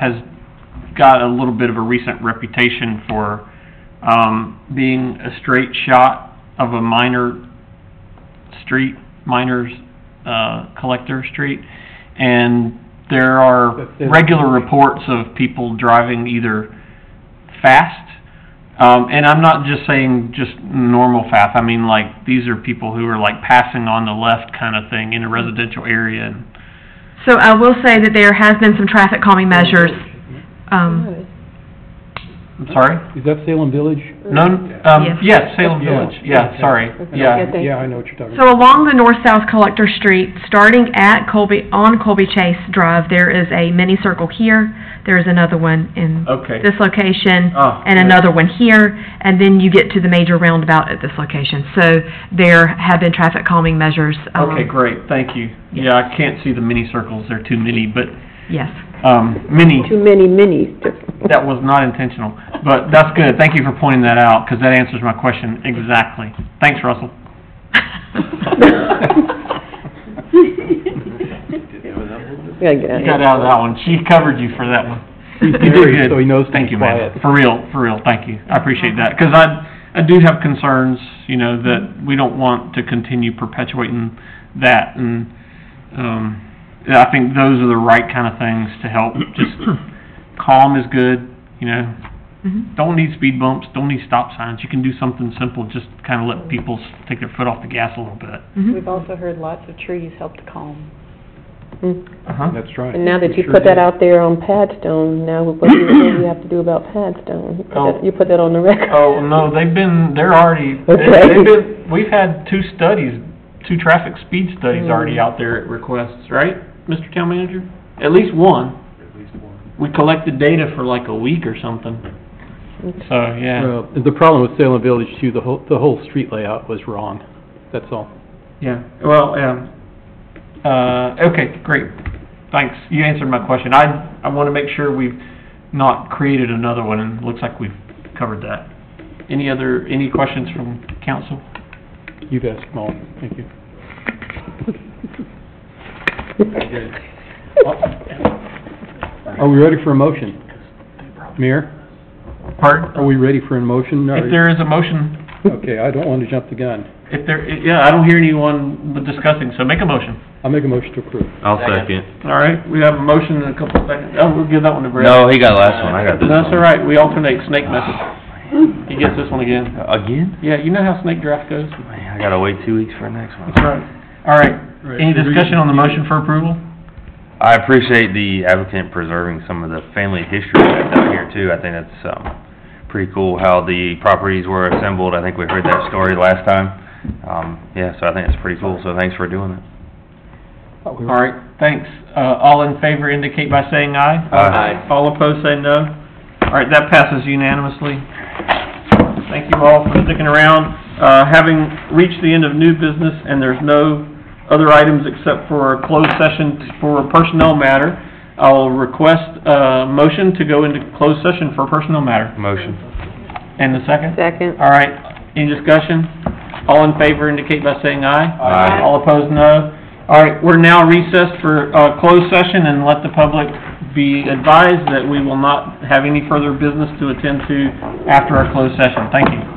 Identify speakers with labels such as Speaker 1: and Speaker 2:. Speaker 1: has got a little bit of a recent reputation for, um, being a straight shot of a minor street, miners, uh, collector street. And there are
Speaker 2: But there's-
Speaker 1: regular reports of people driving either fast, um, and I'm not just saying just normal fast, I mean like, these are people who are like passing on the left kind of thing in a residential area and
Speaker 3: So I will say that there has been some traffic calming measures. Um,
Speaker 1: I'm sorry?
Speaker 2: Is that Salem Village?
Speaker 1: No, um,
Speaker 3: Yes.
Speaker 1: yes, Salem
Speaker 2: Yeah.
Speaker 1: Village, yeah,
Speaker 2: Okay.
Speaker 1: sorry, yeah.
Speaker 4: Okay.
Speaker 2: Yeah, I know what you're talking
Speaker 3: So
Speaker 2: about.
Speaker 3: along the north-south collector street, starting at Colby, on Colby Chase Drive, there is a mini circle here, there is another one in
Speaker 1: Okay.
Speaker 3: this location,
Speaker 1: Oh,
Speaker 3: and
Speaker 1: yeah.
Speaker 3: another one here, and then you get to the major roundabout at this location. So there have been traffic calming measures. um,
Speaker 1: Okay, great, thank you. Yeah, I can't see the mini circles, they're too many, but,
Speaker 3: Yes.
Speaker 1: um, mini,
Speaker 4: Too many minis.
Speaker 1: that was not intentional. But that's good, thank you for pointing that out, because that answers my question exactly. Thanks, Russell.
Speaker 4: Yeah, yeah.
Speaker 1: You got out of that one, she covered you for that one.
Speaker 2: He's
Speaker 1: You did
Speaker 2: married,
Speaker 1: good.
Speaker 2: so he knows to
Speaker 1: Thank
Speaker 2: be
Speaker 1: you, man.
Speaker 2: quiet.
Speaker 1: For real, for real, thank you. I appreciate that, because I, I do have concerns, you know, that we don't want to continue perpetuating that, and, um, yeah, I think those are the right kind of things to help, just calm is good, you know?
Speaker 3: Mhm.
Speaker 1: Don't need speed bumps, don't need stop signs, you can do something simple, just kind of let people s- take their foot off the gas a little bit.
Speaker 3: Mhm.
Speaker 5: We've also heard lots of trees help to calm.
Speaker 4: Mm.
Speaker 1: Uh-huh.
Speaker 2: That's right.
Speaker 4: And now that
Speaker 2: He
Speaker 4: you
Speaker 2: sure
Speaker 4: put that
Speaker 2: did.
Speaker 4: out there on Padstone, now what do you, what do you have to do about Padstone? You put
Speaker 1: Oh.
Speaker 4: that- You put that on the record?
Speaker 1: Oh, no, they've been, they're already,
Speaker 4: Okay.
Speaker 1: they've been, we've had two studies, two traffic speed studies already out there at requests, right, Mr. Town Manager? At least one. We collected data for like a week or something. So, yeah,
Speaker 2: Well, the problem with Salem Village too, the whole, the whole street layout was wrong, that's all.
Speaker 1: yeah, well, um, uh, okay, great. Thanks, you answered my question. I, I want to make sure we've not created another one, and it looks like we've covered that. Any other, any questions from council?
Speaker 2: You've asked them all, thank you. Are we ready for a motion? Mayor,
Speaker 1: Pardon?
Speaker 2: are we ready for a motion?
Speaker 1: If there is a motion,
Speaker 2: Okay, I don't want to jump the gun.
Speaker 1: If there, yeah, I don't hear anyone discussing, so make a motion.
Speaker 2: I'll make a motion to approve.
Speaker 6: I'll second.
Speaker 1: All right, we have a motion in a couple of seconds. Oh, we'll give that one to Brad.
Speaker 6: No, he got last one, I got this one. Ah.
Speaker 1: That's all right, we alternate snake method. He gets this one again.
Speaker 6: Again?
Speaker 1: Yeah, you know how snake draft goes?
Speaker 6: Man, I gotta wait two weeks for the next one.
Speaker 1: That's right. All right, any discussion on the motion for approval?
Speaker 6: I appreciate the applicant preserving some of the family history that's out here too. I think that's, um, pretty cool how the properties were assembled. I think we heard that story last time. Um, yeah, so I think it's pretty cool, so thanks for doing it.
Speaker 1: All right, thanks. Uh, all in favor indicate by saying aye.
Speaker 6: Aye.
Speaker 1: All opposed, say no. All right, that passes unanimously. Thank you all for sticking around. Uh, having reached the end of new business and there's no other items except for a closed session for a personnel matter, I'll request a motion to go into closed session for a personnel matter.
Speaker 6: Motion.
Speaker 1: And the second?
Speaker 4: Second.
Speaker 1: All right, any discussion? All in favor indicate by saying aye.
Speaker 6: Aye.
Speaker 1: All opposed, no. All right, we're now recessed for, uh, closed session and let the public be advised that we will not have any further business to attend to after our closed session. Thank you.